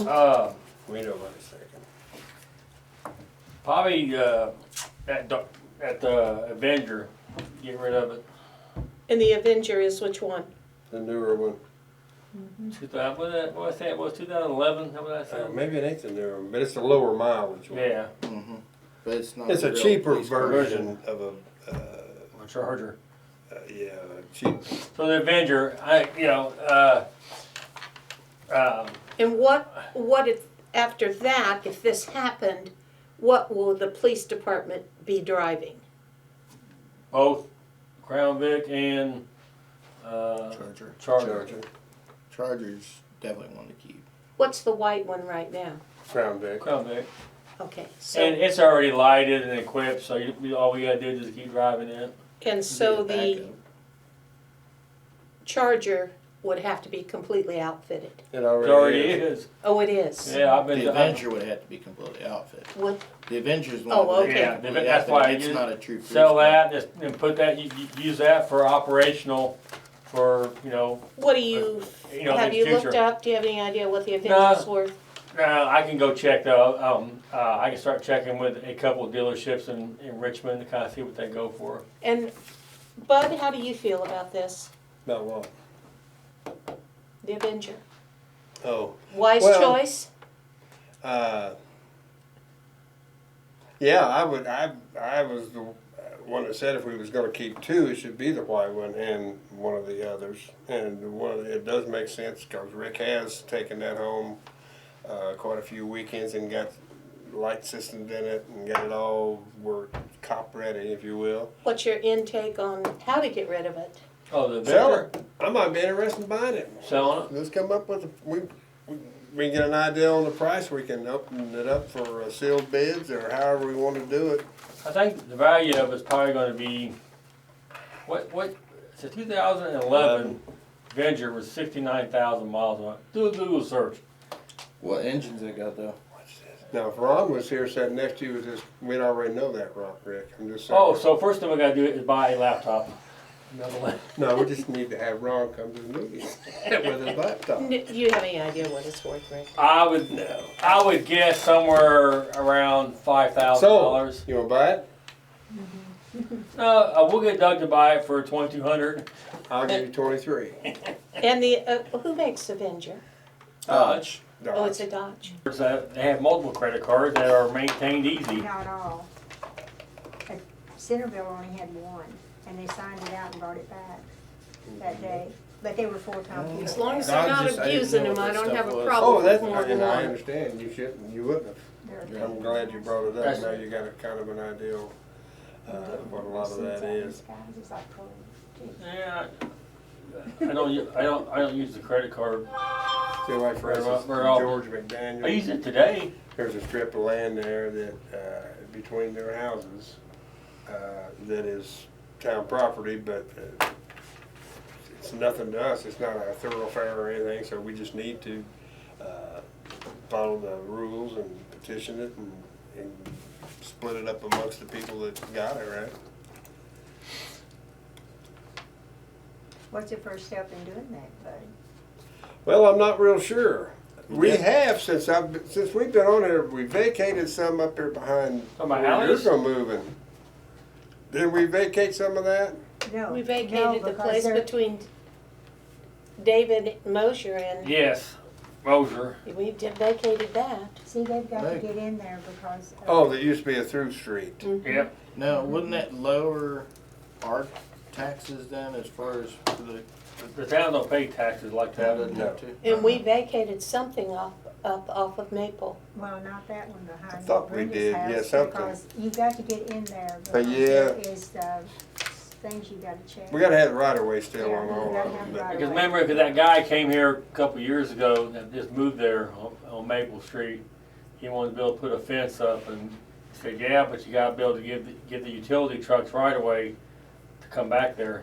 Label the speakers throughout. Speaker 1: Uh,
Speaker 2: Wait a minute a second.
Speaker 1: probably, uh, at the, at the Avenger, get rid of it.
Speaker 3: And the Avenger is which one?
Speaker 2: The newer one,
Speaker 1: Two thousand, what that, what I say it was, two thousand eleven, how would I
Speaker 2: Uh,
Speaker 1: say?
Speaker 2: maybe it ain't the newer one, but it's a lower mileage one.
Speaker 1: Yeah,
Speaker 4: Mm-hmm. But it's not.
Speaker 2: It's a
Speaker 4: real
Speaker 2: cheaper
Speaker 4: police car.
Speaker 2: version of a, uh,
Speaker 1: or Charger.
Speaker 2: uh, yeah, cheap.
Speaker 1: So the Avenger, I, you know, uh, um,
Speaker 3: And what, what if, after that, if this happened, what will the police department be driving?
Speaker 1: both Crown Vic and, uh,
Speaker 4: Charger.
Speaker 1: Charger.
Speaker 4: Chargers definitely want to keep.
Speaker 3: What's the white one right now?
Speaker 2: Crown Vic.
Speaker 1: Crown Vic.
Speaker 3: Okay,
Speaker 1: And
Speaker 3: so,
Speaker 1: it's already lighted and equipped, so you, you- all we gotta do is just keep driving it.
Speaker 3: and so
Speaker 4: Be a
Speaker 3: the Charger would have to be completely outfitted.
Speaker 2: It
Speaker 1: It
Speaker 2: already
Speaker 1: already
Speaker 2: is.
Speaker 1: is.
Speaker 3: Oh, it is?
Speaker 1: Yeah, I've
Speaker 4: backup.
Speaker 1: been.
Speaker 4: The Avenger would have to be completely outfitted.
Speaker 3: Would,
Speaker 4: The Avengers one.
Speaker 3: Oh,
Speaker 4: would have to be
Speaker 3: okay.
Speaker 1: Yeah, the-
Speaker 4: completely
Speaker 1: that's why
Speaker 4: outfitted.
Speaker 1: I
Speaker 4: It's
Speaker 1: use-
Speaker 4: not a true. police
Speaker 1: sell
Speaker 4: car.
Speaker 1: that and- and put that, you, you use that for operational, for, you know,
Speaker 3: what do you,
Speaker 1: you know, in
Speaker 3: have
Speaker 1: the
Speaker 3: you looked
Speaker 1: future.
Speaker 3: up, do you have any idea what the
Speaker 1: No.
Speaker 3: Avenger's worth?
Speaker 1: Uh, I can go check though, um, uh, I can start checking with a couple of dealerships in, in Richmond to kind of see what they go for.
Speaker 3: And Bud, how do you feel about this,
Speaker 2: About what?
Speaker 3: the Avenger?
Speaker 2: Oh,
Speaker 3: Wise
Speaker 2: Well-
Speaker 3: choice?
Speaker 2: uh, yeah, I would, I, I was the one that said if we was gonna keep two, it should be the white one and one of the others. And one, of the- it does make sense, cause Rick has taken that home, uh, quite a few weekends and got light systems in it and got it all, were cop ready, if you will.
Speaker 3: What's your intake on how to get rid of it?
Speaker 1: Oh, the
Speaker 2: Sell
Speaker 1: vendor,
Speaker 2: it. I might be interested in buying it.
Speaker 1: selling it?
Speaker 2: Let's come up with, a- we, we- we can get an idea on the price, we can open it up for uh, sealed bids or however we wanna do it.
Speaker 1: I think the value of it's probably gonna be, what, what, it's a two thousand and eleven Avenger with sixty-nine thousand miles on it. Do a Google search.
Speaker 4: What engines they got though?
Speaker 2: Now, if Ron was here sitting next to you, was just, we'd already know that, Ron, Rick, I'm just saying.
Speaker 1: Oh, so first thing we gotta do is buy a laptop. Another one.
Speaker 2: No, we just need to have Ron come to the meeting with his laptop.
Speaker 3: N- Do you have any idea what it's worth, Rick?
Speaker 1: I would, I would guess somewhere around five thousand
Speaker 2: So,
Speaker 1: dollars.
Speaker 2: you wanna buy it?
Speaker 1: Uh, uh, we'll get Doug to buy it for twenty-two hundred.
Speaker 2: I'll give you twenty-three.
Speaker 3: And the, uh, who makes Avenger?
Speaker 4: Dodge.
Speaker 3: Oh, it's a Dodge.
Speaker 1: They have multiple credit cards that are maintained easy.
Speaker 5: Not all. But Centerville only had one, and they signed it out and brought it back that
Speaker 2: Mm-hmm.
Speaker 5: day, but they were full-time people.
Speaker 3: As long as
Speaker 4: they're
Speaker 3: they're
Speaker 4: Dodge not
Speaker 3: not
Speaker 4: is- I didn't abusing
Speaker 3: abusing
Speaker 4: know what
Speaker 3: them, I don't
Speaker 4: them, I that don't have
Speaker 3: have
Speaker 4: stuff
Speaker 3: a
Speaker 4: a was.
Speaker 2: Oh,
Speaker 3: problem with
Speaker 2: that's,
Speaker 3: more
Speaker 2: and I understand, you shouldn't, you wouldn't have.
Speaker 5: They're-
Speaker 2: I'm glad you brought it up,
Speaker 1: That's-
Speaker 2: now you got a kind of an idea of uh, what a lot of that is.
Speaker 5: These guys is like, oh, geez.
Speaker 1: Yeah. I I don't, u- I don't, I don't use the credit card.
Speaker 2: See, like for
Speaker 1: Right,
Speaker 2: instance,
Speaker 1: right, right off.
Speaker 2: George
Speaker 1: I
Speaker 2: McDaniel,
Speaker 1: use it today.
Speaker 2: there's a strip of land there that, uh, between their houses, uh, that is town property, but uh, it's nothing to us, it's not a thoroughfare or anything, so we just need to, uh, follow the rules and petition it and, and split it up amongst the people that got it, right?
Speaker 5: What's the first step in doing that, bud?
Speaker 2: Well, I'm not real sure. We
Speaker 4: Yeah.
Speaker 2: have since I've been- since we've been on here. We vacated some up here behind
Speaker 1: Oh, my
Speaker 2: where
Speaker 1: alleys?
Speaker 2: You're moving. Did we vacate some of that?
Speaker 5: No.
Speaker 3: We
Speaker 5: no,
Speaker 3: vacated the
Speaker 5: because
Speaker 3: place
Speaker 5: they're-
Speaker 3: between David Mosher and,
Speaker 1: Yes. Mosier.
Speaker 3: we did vacated that.
Speaker 5: See, they've got to
Speaker 4: Right.
Speaker 5: get in there because. of-
Speaker 2: Oh, there used to be a through street.
Speaker 1: Yep.
Speaker 4: Now, wouldn't that lower our taxes then as far as for the
Speaker 1: The- The town don't pay taxes like
Speaker 4: town
Speaker 1: that.
Speaker 4: doesn't
Speaker 2: No.
Speaker 4: have to?
Speaker 3: And we vacated something off, up off of Maple.
Speaker 5: Well, not that one behind.
Speaker 2: I thought we
Speaker 5: Brenda's
Speaker 2: did, yeah,
Speaker 5: house,
Speaker 2: something.
Speaker 5: Because you got to get in there.
Speaker 2: Uh,
Speaker 5: because
Speaker 2: yeah.
Speaker 5: there Is, uh, things you gotta check.
Speaker 2: We gotta have the right of way still
Speaker 5: Yeah,
Speaker 2: on
Speaker 5: we
Speaker 2: all
Speaker 5: gotta
Speaker 2: of them.
Speaker 5: have
Speaker 2: but-
Speaker 5: right-
Speaker 1: Because remember, 'cause that guy came here a couple years ago that just moved there on, on Maple Street. He wanted to be able to put a fence up and said, yeah, but you gotta be able to give, the- give the utility trucks right away to come back there.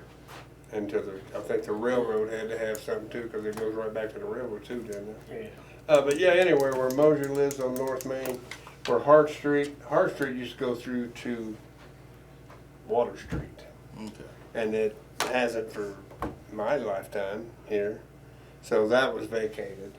Speaker 2: And to the, I think the railroad had to have something too, because it goes right back to the railroad too, didn't it?
Speaker 1: Yeah.
Speaker 2: Uh, but yeah, anyway, where Mosier lives on North Main, where Hart Street, Hart Street used to go through to Water Street.
Speaker 4: Okay.
Speaker 2: and it hasn't for my lifetime here. So that was vacated.